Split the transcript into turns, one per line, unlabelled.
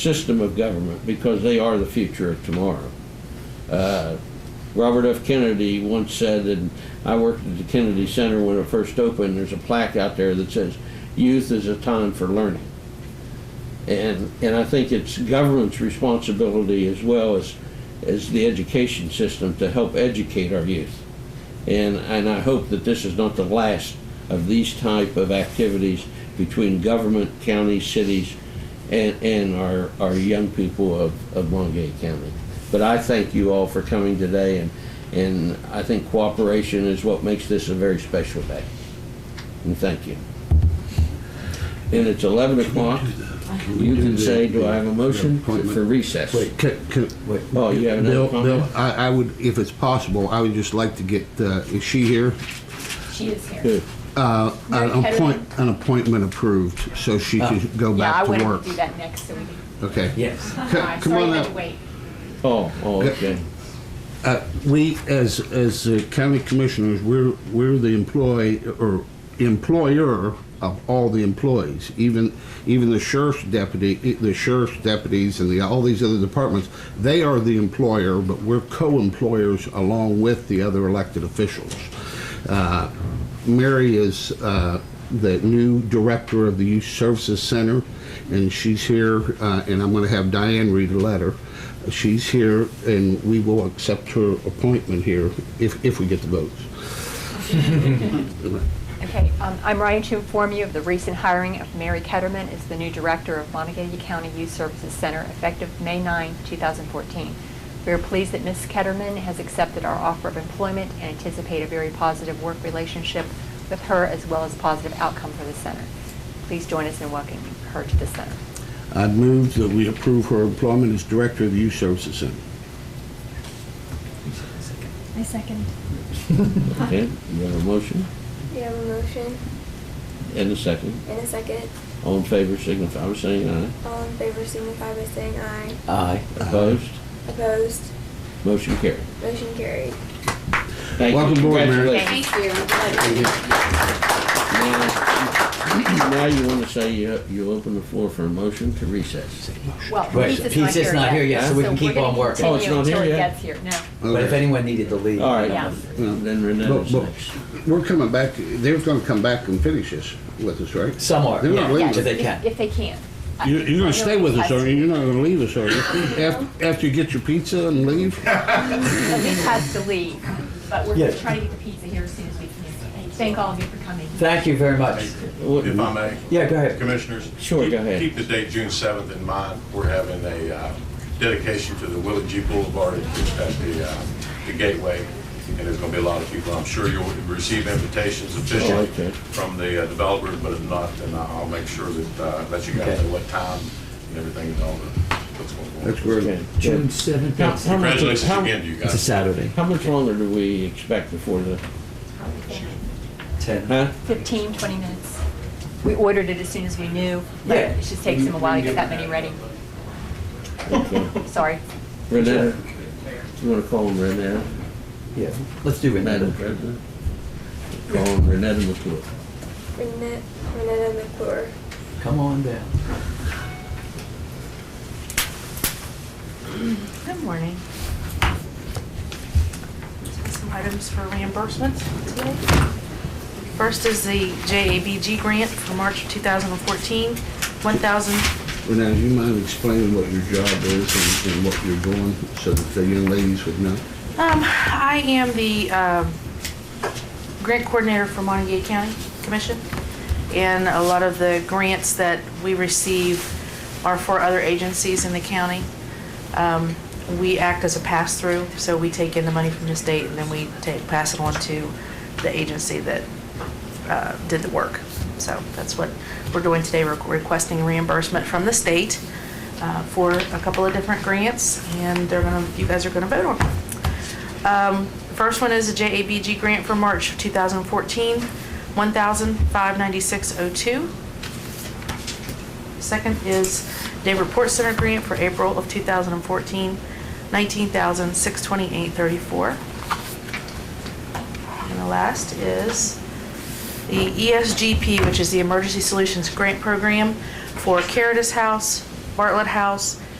system of government because they are the future of tomorrow. Uh, Robert F. Kennedy once said, and I worked at the Kennedy Center when it first opened, there's a plaque out there that says, Youth is a time for learning. And, and I think it's government's responsibility as well as, as the education system to help educate our youth. And, and I hope that this is not the last of these type of activities between government, counties, cities, and, and our, our young people of, of Montague County. But I thank you all for coming today, and, and I think cooperation is what makes this a very special day. And thank you. And it's 11 o'clock. You can say, do I have a motion for recess?
Wait, can, can, wait.
Oh, you have another
Bill,
comment?
Bill, I, I would, if it's possible, I would just like to get, uh, is she here?
She is here.
Good.
Uh,
Mary
an
Kennedy.
appoint, an appointment approved, so she can go
Yeah, I
back
wanted
to
to
work.
do that next, so we can.
Okay.
Yes.
C-
I'm
Come
sorry, I
on
had to
up.
wait.
Oh, oh, okay.
Uh, we, as, as uh, county commissioners, we're, we're the employee, or employer of all the employees, even, even the sheriff's deputy, eh, the sheriff's deputies and the, all these other departments, they are the employer, but we're co-employers along with the other elected officials. Uh, Mary is uh, the new director of the Youth Services Center, and she's here, uh, and I'm going to have Diane read a letter. She's here, and we will accept her appointment here if, if we get the votes.
Okay, um, I'm writing to inform you of the recent hiring of Mary Ketterman as the new director of Montague County Youth Services Center effective May 9, 2014. We are pleased that Ms. Ketterman has accepted our offer of employment and anticipate a very positive work relationship with her as well as positive outcome for the center. Please join us in welcoming her to the center.
I move that we approve her employment as director of the Youth Services Center.
I second.
Okay, you have a motion
We have a motion
and a second.
and a second.
All in favor, signify by saying aye.
All in favor signify by saying aye.
Aye.
Opposed?
Opposed?
Motion carried.
Motion carried.
Thank you.
Welcome aboard, Mary.
Congratulations.
Thank you.
Now now you want to say you, you open the floor for a motion to recess.
Well,
Right,
Lisa's
Lisa's not here yet,
yet,
so we can
we're
keep
gonna
on working.
Oh, it's not
continue
here
until it
yet?
gets here. No.
But if anyone needed to leave. um,
All right.
Yeah.
Then Renee
But-
is
but
next.
We're coming back, they're going to come back and finish this with us, right?
Some are,
They're not
yeah,
leaving.
if they
If-
can.
If they can. I-
You're, you're
I
gonna
know
stay with us,
I-
are you? You're not gonna leave us, are you? After, after you get your pizza and leave?
at least has to leave, but we're
Yeah.
gonna try to get the pizza here as soon as we can. Thank all of you for coming.
Thank you very much.
If I may,
Yeah, go ahead.
Commissioners.
Sure,
keep-
go ahead.
Keep the date June 7th in mind. We're having a uh, dedication to the Willie G. Boulevard at the uh, the Gateway, and there's going to be a lot of people. I'm sure you'll receive invitations
Oh,
officially
okay.
from the uh, developers, but if not, then I'll make sure that, uh, let you guys know what time and everything and all the, what's going
That's
on.
where,
Okay.
June
How-
seventh.
how much-
Congratulations
how-
again to you
It's a
guys.
Saturday.
How much longer do we expect before the,
Ten.
huh?
15, 20 minutes. We ordered it as soon as we knew, but
Yeah.
it just takes them a while to get that many ready.
Okay.
Sorry.
Renee, you want to call him Renee?
Yeah, let's do it.
Madam President? Call him Renee McClure.
Renette, Renetta McClure.
Come on down.
Good morning.
some items for reimbursement today. First is the JABG grant for March of 2014, 1,000,
now, do you mind explaining what your job is and, and what you're doing so that the young ladies would know?
um, I am the, um, grant coordinator for Montague County Commission. And a lot of the grants that we receive are for other agencies in the county. Um, we act as a pass-through, so we take in the money from the state and then we take, pass it on to the agency that, uh, did the work. So that's what we're doing today, We're requesting reimbursement from the state, uh, for a couple of different grants and they're gonna, you guys are gonna vote on them. Um, First one is a JABG grant for March of 2014, 1,596.02. Second is Day Report Center grant for April of 2014, 19,628.34. And the last is E the ESGP, which is the Emergency Solutions Grant Program for Caritas House, Bartlett House,